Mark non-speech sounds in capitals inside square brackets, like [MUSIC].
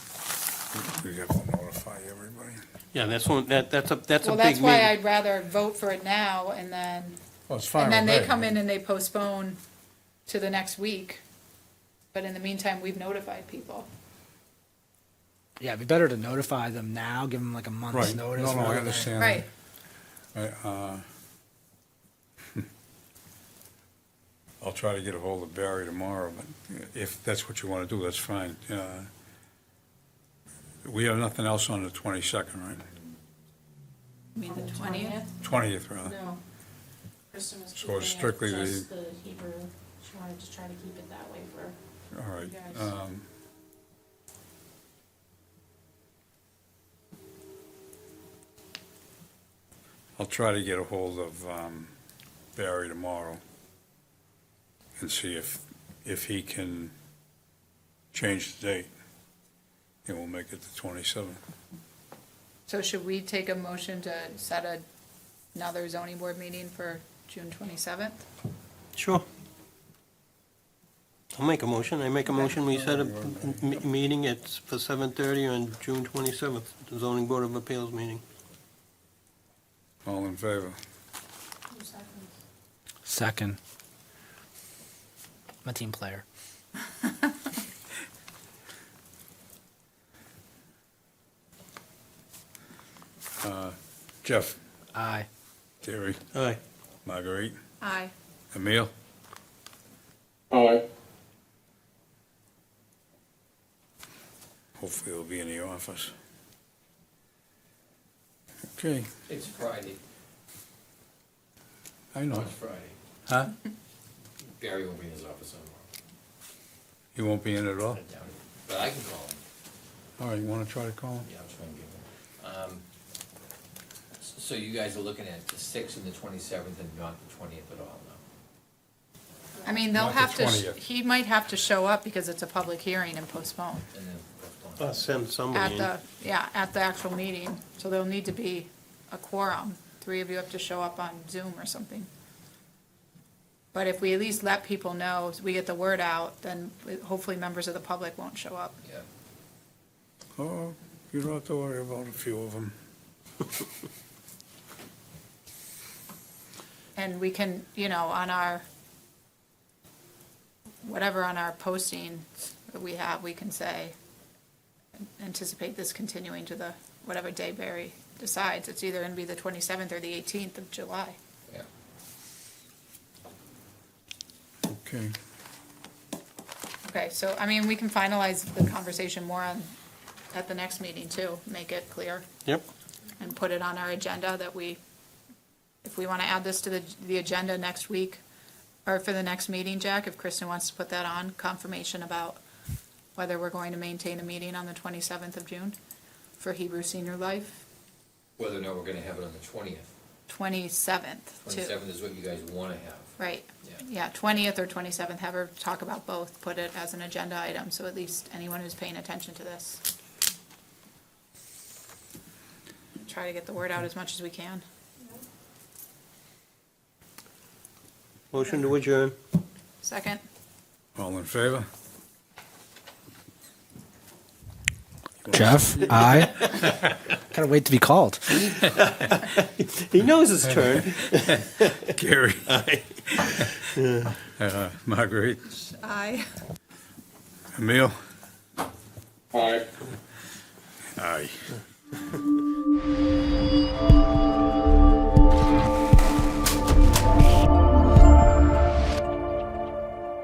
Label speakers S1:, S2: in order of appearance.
S1: We have to notify everybody.
S2: Yeah, that's one, that, that's a, that's a
S3: Well,
S2: big
S3: that's
S2: meeting.
S3: why I'd rather vote for it now and then,
S1: Well, it's fine
S3: and then
S1: with
S3: they
S1: me.
S3: come in and they postpone to the next week. But in the meantime, we've notified people.
S4: Yeah, it'd be better to notify them now, give them like a month's
S1: Right, no,
S4: notice.
S1: no,
S4: rather
S1: I
S4: than-
S1: understand.
S3: Right,
S1: I, uh, I'll try to get ahold of Barry tomorrow, but if that's what you want to do, that's fine. Uh, We have nothing else on the 22nd, right?
S3: I mean, the twentieth,
S1: 20th, rather.
S5: No. Kristen was
S1: Uh-huh. So
S5: keeping it
S1: strictly the-
S5: just the Hebrew, she wanted to try to keep it that way for,
S1: All right.
S5: You guys.
S1: um, I'll try to get a hold of um, Barry tomorrow and see if, if he can change the date. And we'll make it the 27th.
S3: so should we take a motion to set a- another zoning board meeting for June twenty-seventh?
S2: Sure. I'll make a motion, I make a motion, we set a m- m- meeting, it's for seven thirty on June twenty-seventh, the zoning board of appeals meeting.
S1: All in favor?
S5: two seconds.
S4: Second. I'm a team player.
S1: Jeff,
S4: Aye.
S1: Terry,
S2: Aye.
S1: Marguerite,
S3: Aye.
S1: Emil?
S6: Aye.
S1: Hopefully he'll be in the office. Okay,
S7: It's Friday,
S1: I know.
S7: it's Friday.
S1: Huh?
S7: Gary will be in his office tomorrow,
S1: He won't be in at all?
S7: I doubt it. But I can call him,
S1: All right, you want to try to call him?
S7: yeah, I'm just gonna give him. Um, s- So you guys are looking at the sixth and the twenty-seventh and not the twentieth at all, no?
S3: I mean, they'll
S1: Not the
S3: have to, sh-
S1: 20th.
S3: he might have to show up because it's a public hearing and postpone
S7: And then what's going
S2: I'll
S7: on?
S2: send somebody
S3: at
S2: in.
S3: the, yeah, at the actual meeting. So there'll need to be a quorum. Three of you have to show up on Zoom or something. But if we at least let people know, we get the word out, then hopefully members of the public won't show up.
S7: Yeah,
S1: Oh, you don't have to worry about a few of them.
S3: And we can, you know, on our, whatever on our posting that we have, we can say, anticipate this continuing to the, whatever day Barry decides. It's either gonna be the twenty-seventh or the eighteenth of July.
S7: yeah.
S1: Okay.
S3: Okay, so, I mean, we can finalize the conversation more on, at the next meeting too, make it clear
S2: Yep,
S3: and put it on our agenda that we, if we wanna add this to the, the agenda next week, or for the next meeting, Jack, if Kristen wants to put that on, confirmation about whether we're going to maintain a meeting on the twenty-seventh of June for Hebrew Senior Life,
S7: Whether or not we're gonna have it on the twentieth,
S3: twenty-seventh too.
S7: twenty-seventh is what you guys wanna have.
S3: Right,
S7: Yeah.
S3: yeah, twentieth or twenty-seventh, have her talk about both, put it as an agenda item, so at least anyone who's paying attention to this. Try to get the word out as much as we can.
S2: motion to adjourn.
S3: Second,
S1: All in favor?
S4: [LAUGHS] Jeff, aye. Gotta wait to be called.
S2: He knows his turn.
S1: Gary? [LAUGHS] Uh, Marguerite?
S3: aye.
S1: Emil?
S6: Aye.
S1: Aye.